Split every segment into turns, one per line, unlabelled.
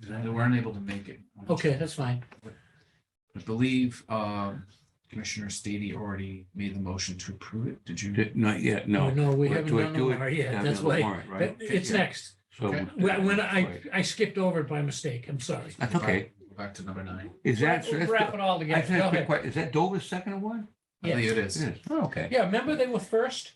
They weren't able to make it.
Okay, that's fine.
I believe um, Commissioner Stady already made the motion to approve it. Did you?
Di- Not yet, no.
Oh, No, we
We're-
haven't
do I
done the
do it
warrant yet.
Down
That's
to the
why,
warrant,
but
Right.
it's next.
So.
Okay.
When when I,
Right.
I skipped over it by mistake, I'm sorry.
That's okay.
Go Back to number nine.
Is that, so
We'll
that's,
Wrap it all
I
together.
just
Go
have a quick
ahead.
question. Is that Dover's second one?
I believe it
It
is.
is. Oh, Okay,
Yeah, remember they were first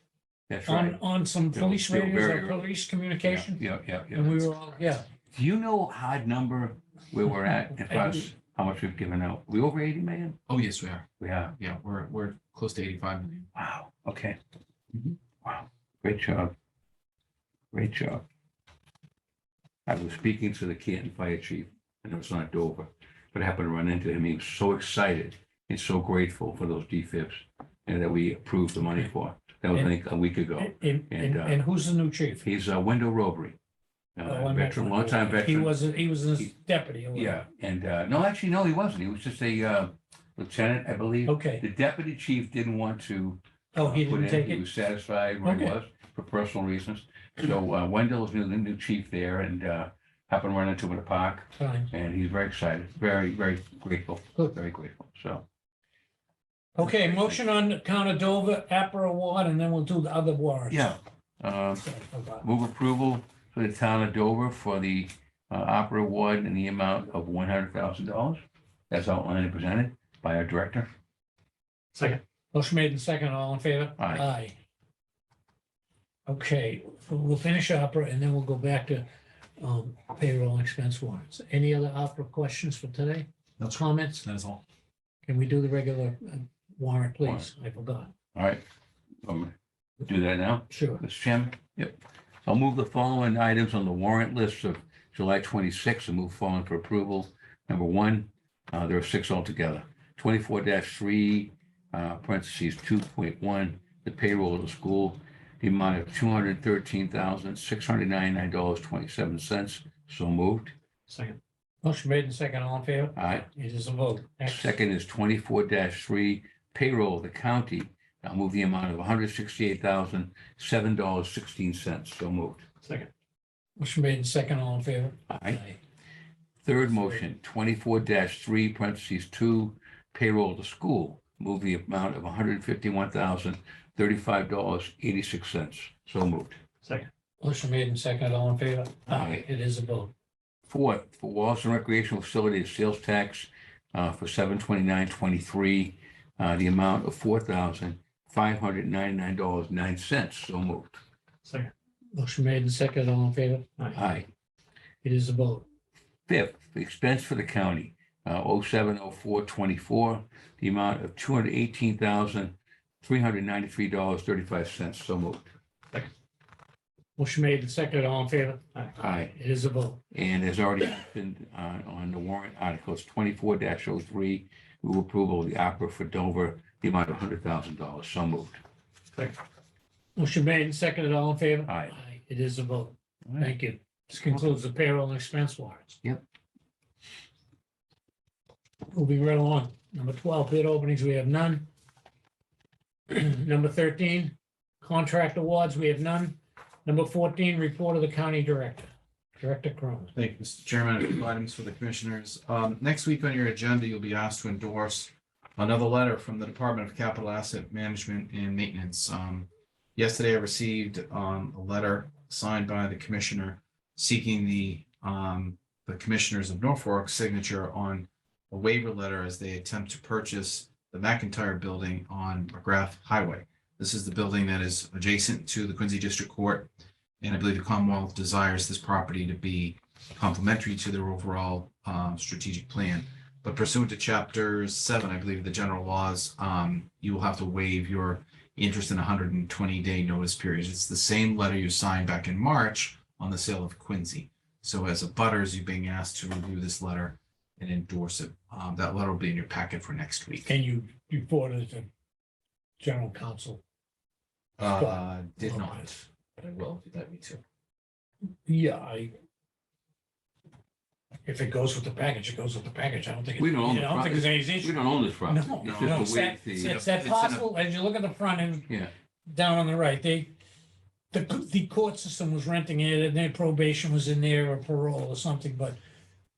that's
on,
right.
on some
Bill-
police
Bill
radios
Barry,
or
right.
police
Yeah,
communication?
yeah, yeah. yeah.
And we were all, yeah.
Do you know hard number where we're at as far as how much we've given out? We over eighty million?
Oh, yes, we are.
We are.
Yeah, we're, we're close to eighty-five million.
Wow, okay.
Mm-hmm.
Mhm.
Wow, great job. Great job. I was speaking to the Canton Fire Chief, and it was not Dover, but I happened to run into him. He was so excited and so grateful for those DFIPs and that we approved the money for. That was, I think, a week ago.
And, and,
And,
and
uh,
and who's the new chief?
He's a window robbery.
Oh,
Uh,
I met
Veteran,
him.
longtime
He
veteran.
was, a- he was a
He-
deputy. or whatever.
Yeah, and, uh, no, actually, no, he wasn't. He was just a uh, lieutenant, I believe.
Okay.
The deputy chief didn't want to
Oh, he
uh, put
didn't
in.
take
He
it?
was satisfied where he
Okay.
was for personal reasons. So uh, Wendell's new, the new chief there and uh, happened to run into him in the park
Fine.
and he's very excited, very, very grateful,
Good.
very grateful. So
Okay, motion on the town of Dover, APRA award, and then we'll do the other warrants.
yeah, uh,
So, about-
move approval for the town of Dover for the uh, opera award in the amount of one hundred thousand dollars. That's outlined and presented by our director.
Second. Motion made in second, all in favor?
Aye.
Okay, we'll finish opera and then we'll go back to um, payroll and expense warrants. Any other opera questions for today? No comments?
That is all.
Can we do the regular uh, warrant, please? I forgot.
All right. Um, Do that now.
Sure.
Mr. Chairman? Yep. I'll move the following items on the warrant list of July 26th and move forward for approval. Number one, uh, there are six altogether. 24-3, uh, parentheses, 2.1, the payroll of the school, the amount of $213,699.27. So moved.
Second. Motion made in second, all in favor?
All right.
It is a vote. Next.
Second is twenty-four three payroll of the county. I'll move the amount of hundred sixty-eight thousand, seven dollars, sixteen cents. So moved.
Second. Motion made in second, all in favor?
All right. Third motion, twenty-four three, parentheses, two, payroll to school, move the amount of one hundred fifty-one thousand, thirty-five dollars, eighty-six cents. So moved.
Motion made in second, all in favor? Ah,
Aye.
It is a vote.
Fourth, for Wallace and recreational facilities, sales tax uh, for seven twenty-nine twenty-three, uh, the amount of four thousand, five hundred ninety-nine dollars, nine cents. So moved.
Second. Motion made in second, all in favor?
Aye.
It is a vote.
Fifth, the expense for the county, oh seven oh four twenty-four, the amount of two hundred eighteen thousand, three hundred ninety-three dollars, thirty-five cents. So moved.
Motion made in second, all in favor?
Aye.
It is a vote.
And has already been uh, on the warrant articles twenty-four 3 move approval of the opera for Dover, the amount of hundred thousand dollars. So moved.
Motion made in second, all in favor?
Aye.
It is a vote.
All right.
Thank you. This concludes the payroll and expense warrants.
Yep.
Moving right along. Number twelve, bid openings, we have none. Number thirteen, contract awards, we have none. Number fourteen, report of the county director, Director Cronin.
Thank you, Mr. Chairman. A few items for the commissioners. Um, next week on your agenda, you'll be asked to endorse another letter from the Department of Capital Asset Management and Maintenance. Um, yesterday I received, um, a letter signed by the commissioner seeking the, um, the commissioners of Norfolk signature on a waiver letter as they attempt to purchase the McIntyre Building on McGrath Highway. This is the building that is adjacent to the Quincy District Court. And I believe the Commonwealth desires this property to be complementary to their overall um, strategic plan. But pursuant to chapter seven, I believe, of the general laws, um, you will have to waive your interest in hundred and twenty day notice period. It's the same letter you signed back in March on the sale of Quincy. So as a butters, you're being asked to review this letter and endorse it. Um, That letter will be in your packet for next week.
And you, you forwarded it to general counsel.
Uh,
Oh,
Did not, but I will, if you let me too.
Yeah, I. If it goes with the package, it goes with the package. I don't think. it-
We don't own
I
the
don't think there's any
We
issue.
don't own this property.
No,
It's
no,
just
it's
a way
that,
the,
it's that
It's in a-
parcel, as you look at the front end.
Yeah.
Down on the right, they, the, the court system was renting it and their probation was in there or parole or something, but